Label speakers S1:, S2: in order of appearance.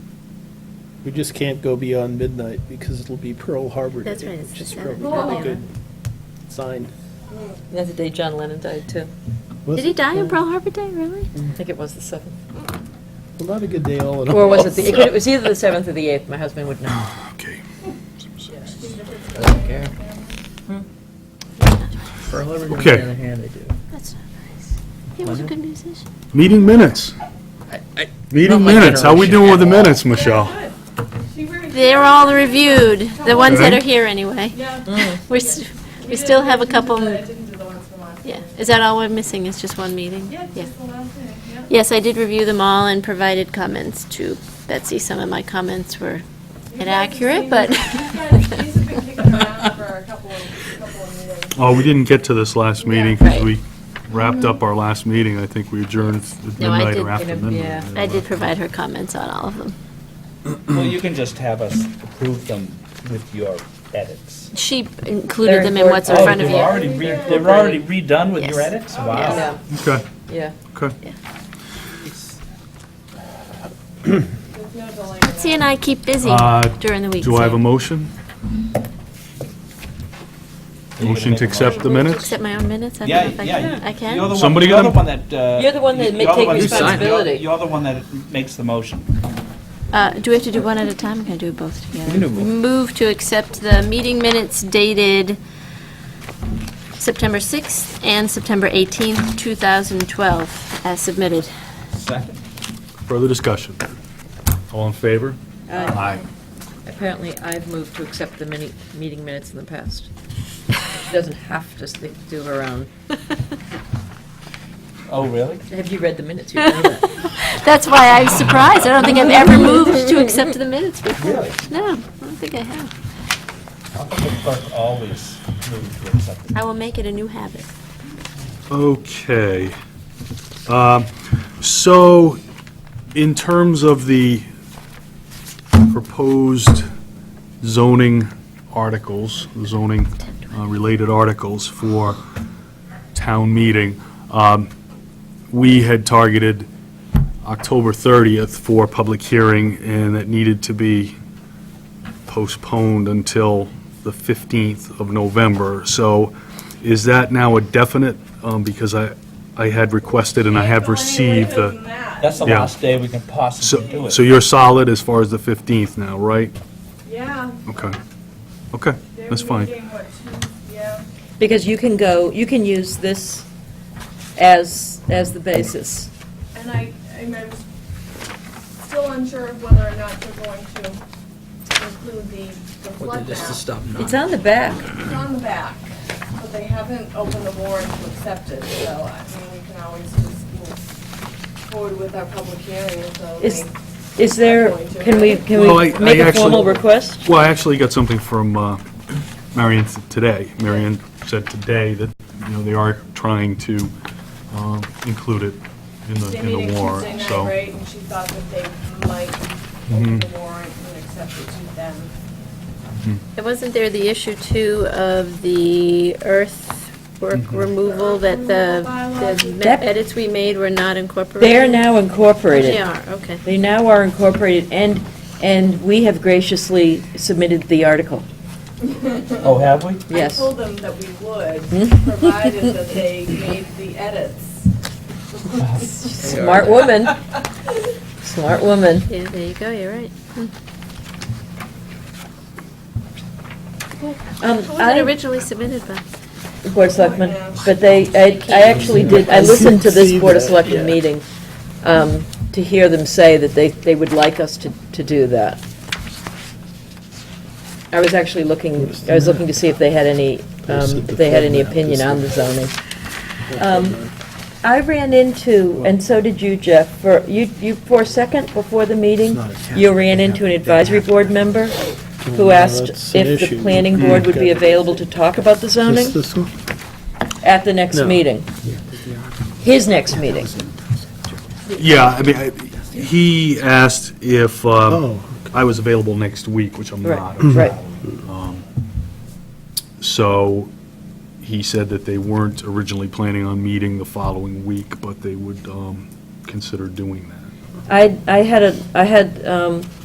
S1: We just can't go beyond midnight because it'll be Pearl Harbor Day.
S2: That's right, it's
S1: Which
S2: the
S1: is
S2: seventh.
S1: probably a really
S3: Oh.
S1: good sign.
S4: That's the day John Lennon died, too.
S1: Was
S2: Did he
S1: it?
S2: die on Pearl Harbor Day, really?
S4: I think it was the 7th.
S1: Well, Not a good day all in all.
S4: Or was it the, it could- it was either the 7th or the 8th, my husband would know.
S5: Okay. Some six.
S6: Pearl Harbor, on
S5: Okay.
S6: the other hand, they do.
S2: That's not nice. He was a good musician.
S5: Meeting minutes. Meeting
S6: my
S5: minutes. How we
S6: generation
S5: doing with the
S6: at all.
S5: minutes, Michelle?
S2: They're all reviewed, the ones that are here anyway.
S3: Yeah.
S2: We're, s- we still have a couple,
S3: I didn't do the ones from last
S2: yeah.
S3: year.
S2: Is that all we're missing, is just one meeting?
S3: Yeah, just the last thing, yeah.
S2: Yes, I did review them all and provided comments to Betsy. Some of my comments were
S3: You guys have
S2: inaccurate,
S3: seen
S2: but.
S3: these- These guys- these have been kicking around for a couple of, couple of meetings.
S5: Oh, we didn't get to this last meeting because
S2: Right.
S5: we wrapped up our last meeting. I think we adjourned at
S2: No, I
S5: midnight or
S2: did
S5: after
S4: get a- yeah.
S5: midnight.
S2: I did provide her comments on all of them.
S7: Well, you can just have us approve them with your edits.
S2: She included them in what's in
S7: Oh,
S2: front of
S7: they've
S2: you.
S7: already re- They're already redone with your
S2: Yes. Oh,
S7: edits? Wow.
S4: Yeah,
S5: Okay,
S4: yeah.
S5: okay.
S3: There's no delay.
S2: Betsy and I keep busy
S5: Uh,
S2: during the week.
S5: Do I have
S2: so-
S5: a motion? Motion to accept the minutes?
S2: Accept my own minutes? I
S7: Yeah,
S2: don't know if I
S7: yeah.
S2: can. I can?
S7: You're the one-
S5: Somebody
S7: you're
S5: gonna-
S7: the one that, uh,
S4: You're the one that ma-
S7: you're the
S4: take
S7: one that-
S4: responsibility.
S7: you're- You're the one that makes the motion.
S2: Uh, Do we have to do one at a time, or can I do both together?
S7: can do both.
S2: Move to accept the meeting minutes dated September 6th and September 18th, 2012, as submitted.
S7: Second.
S5: Further discussion? All in favor? Aye.
S4: Apparently, I've moved to accept the mini, meeting minutes in the past. She doesn't have to stick to her own.
S7: Oh, really?
S4: Have you read the minutes? You know that.
S2: That's why I'm surprised. I don't think I've ever moved to accept the minutes before.
S7: Really?
S2: No, I don't think I have.
S7: How come the clerk always moves to accept them?
S2: I will make it a new habit.
S5: Okay. Um, So, in terms of the proposed zoning articles, zoning-related articles for town meeting, um, we had targeted October 30th for public hearing, and it needed to be postponed until the 15th of November. So is that now a definite? Um, Because I, I had requested and I have received the,
S7: That's the
S5: Yeah.
S7: last day we can possibly do
S5: so,
S7: it.
S5: so you're solid as far as the 15th now, right?
S3: Yeah.
S5: Okay. Okay,
S3: they're
S5: that's fine.
S3: meeting, what, two- yeah.
S4: Because you can go, you can use this as, as the basis.
S3: And I, I'm I'm still unsure of whether or not they're going to include the the flood
S6: Just to
S3: map.
S6: stop
S4: It's on the back.
S3: It's on the back, but they haven't opened the warrant to accept it, so I mean, we can always just move forward with our public hearing until they.
S4: Is, is there, can we, can
S5: Well, I-
S4: we make
S5: I
S4: a
S5: actually-
S4: formal request?
S5: Well, I actually got something from uh, Marion th- today. Marion said today that, you know, they are trying to um, include it in the,
S3: They're
S5: in
S3: meeting
S5: the
S3: Tuesday
S5: warrant,
S3: night,
S5: so. Mm-hmm.
S3: right, and she thought that they might open the warrant and accept it to them.
S2: And wasn't there the issue too of the
S4: Mm-hmm.
S2: earthwork removal that the the ma-
S4: That-
S2: edits we made were not incorporated?
S4: They are now incorporated.
S2: They are, okay.
S4: They now are incorporated, and, and we have graciously submitted the article,
S7: Oh, have we?
S4: yes. Mm-hmm.
S3: I told them that we would, provided that they made the edits.
S4: Smart woman. Smart woman.
S2: Yeah, there you go, you're right.
S4: Um,
S2: Who was
S4: I-
S2: it originally submitted by?
S4: the Board of Selectmen, but they, I I actually did, I listened to this Board of Selectmen meeting um, to hear them say that they, they would like us to, to do that. I was actually looking, I was looking to see if they had any, um, if they had any opinion on the zoning. Um, I ran into, and so did you, Jeff, for, you, you, for a second before the meeting, you ran into an advisory board member who asked
S1: that's an
S4: if the
S1: issue.
S4: planning board would be
S1: Okay.
S4: available to talk about the zoning
S1: Is this one?
S4: at the next
S1: No.
S4: meeting. His next meeting.
S5: Yeah, I mean, I- he asked if um,
S1: Oh.
S5: I was available next week, which I'm
S4: Right,
S5: not.
S4: right.
S5: Um, So he said that they weren't originally planning on meeting the following week, but they would um, consider doing that.
S4: I, I had a, I had, um,